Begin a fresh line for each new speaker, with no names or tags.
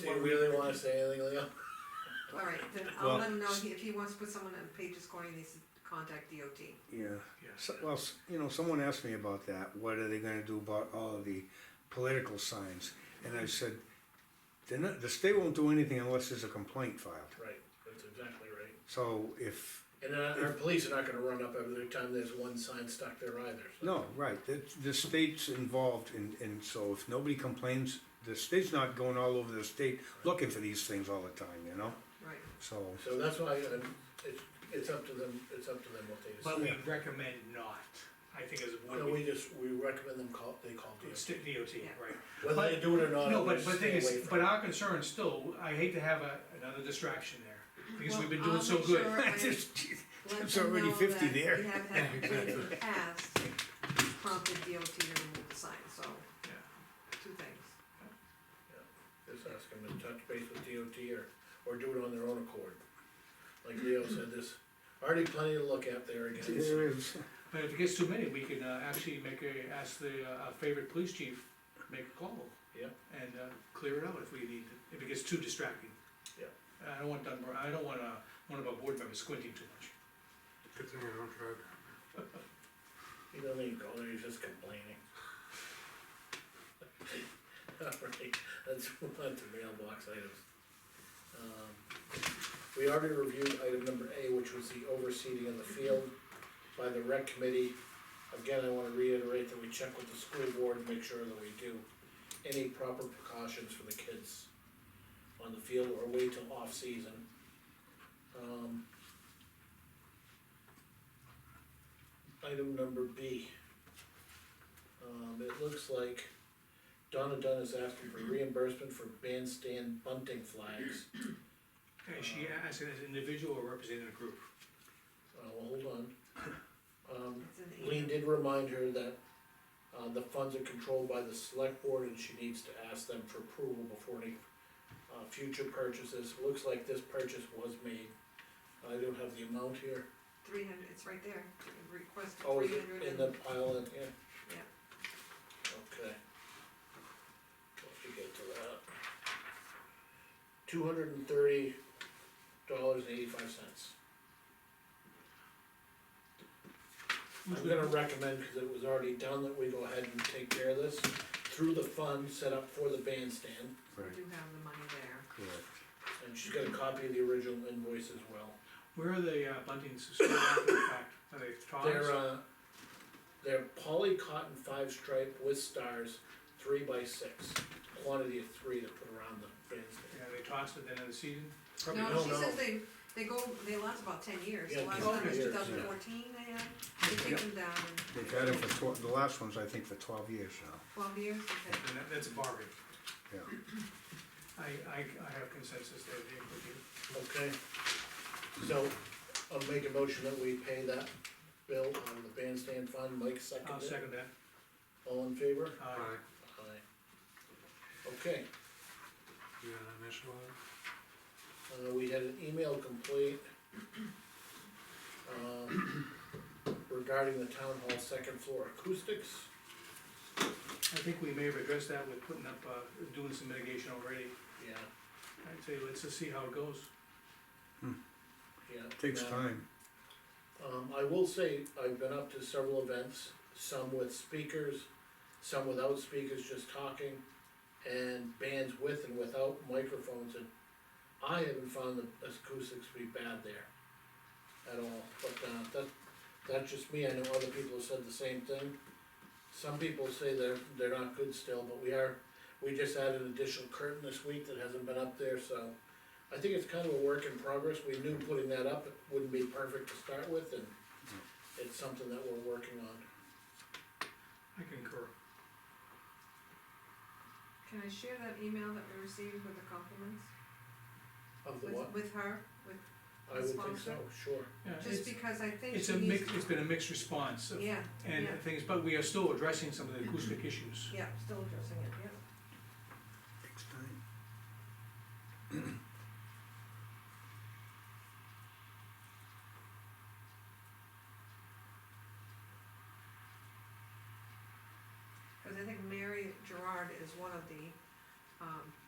you really wanna say anything, Leo?
Alright, then
Well,
I'll let him know, he- if he wants to put someone in Page's Corner, he needs to contact DOT.
Yeah,
Yes.
so, well, s- you know, someone asked me about that, what are they gonna do about all of the political signs? And I said, they're not, the state won't do anything unless there's a complaint filed.
Right, that's exactly right.
So if,
And our, our police are not gonna run up every time there's one sign stuck there either, so.
no, right, the, the state's involved and, and so if nobody complains, the state's not going all over the state looking for these things all the time, you know?
Right,
So,
So that's why, um, it's, it's up to them, it's up to them what they
But
decide.
we recommend not, I think as a
No,
board,
we just, we recommend them call, they call
we,
DOT,
stick DOT,
Yeah.
right?
whether they do it or not,
No,
we
but, but
stay
thing
away
is,
from
but
it.
our concern still, I hate to have a, another distraction there, because we've been
Well,
doing
I'll
so
make
good.
sure I-
just,
let
There's
them
already
know
50
that
there.
We have had complaints in the past, prompted DOT to remove the sign, so,
Yeah.
two things.
Just ask them to touch base with DOT or, or do it on their own accord. Like Leo said, there's already plenty to look at there again, so.
there is,
But if it gets too many, we can uh, actually make a, ask the, uh, our favorite police chief, make a call.
Yeah.
And, uh, clear it out if we need, to- if it gets too distracting.
Yeah.
I don't want Dunbar, I don't want, uh, one of our board members squinting too much.
Good thing I don't drive.
He doesn't even go there, he's just complaining. Alright, let's move on to mailbox items. Um, We already reviewed item number A, which was the overseeding in the field by the rec committee. Again, I wanna reiterate that we check with the school board and make sure that we do any proper precautions for the kids on the field or wait till off-season. Um, item number B. Um, it looks like Donna Dunn is asking for reimbursement for bandstand bunting flags.
Is she asking as an individual or representing a group?
Uh, well, hold on. Um,
It's an
Lean
email.
did remind her that, uh, the funds are controlled by the select board and she needs to ask them for approval before any, uh, future purchases. Looks like this purchase was made. I don't have the amount here.
Three hundred, it's right there, request
Oh,
three
is it
hundred
in
and,
the pile in here?
Yeah.
Okay. Let me get to that. Two hundred and thirty dollars and eighty-five cents.
Who's
I'm gonna recommend, cause it was already done, that we go ahead and take care of this through the fund set up for the bandstand.
right,
we do have the money there.
correct.
And she's got a copy of the original invoice as well.
Where are the uh, buntings stored after the fact? Are they
They're,
tallest?
uh, they're poly cotton five stripe with stars, three by six, quantity of three to put around the bandstand.
Yeah, they tossed at the end of the season? Probably
No,
no,
she
no.
says they, they go, they last about ten years,
Yeah,
the last
10
time was two
years, yeah.
thousand fourteen, they had, they
Yeah.
take them down
They've had it for twelve, the last one's I think for twelve years now,
twelve years, okay.
Then that- that's a bargain.
yeah.
I, I, I have consensus there, Dave, with you.
Okay, so I'll make a motion that we pay that bill out of the bandstand fund, Mike
I'll
seconded it,
second that.
all in favor?
Uh,
Aye,
Aye. Okay,
you got an initial on it?
uh, we had an email complete. um, Regarding the town hall second floor acoustics,
I think we may have addressed that with putting up, uh, doing some mitigation already.
yeah,
I'd say, let's just see how it goes.
yeah.
Takes
now,
time.
Um, I will say, I've been up to several events, some with speakers, some without speakers, just talking, and bands with and without microphones, and I haven't found the acoustics to be bad there at all, but, uh, that, that's just me, I know other people have said the same thing. Some people say they're, they're not good still, but we are, we just added an additional curtain this week that hasn't been up there, so. I think it's kind of a work in progress, we knew putting that up it wouldn't be perfect to start with, and it's something that we're working on.
I concur.
Can I share that email that we received with the compliments?
Of the
With,
what?
with her, with,
I would think so,
sponsor?
sure.
Yeah,
just
it's,
because I think
it's
she
a
needs,
mix, it's been a mixed response of-
yeah,
and
yeah.
things, but we are still addressing some of the acoustic issues.
yeah, still addressing it, yeah.
Takes time.
Cause I think Mary Gerard is one of the, um,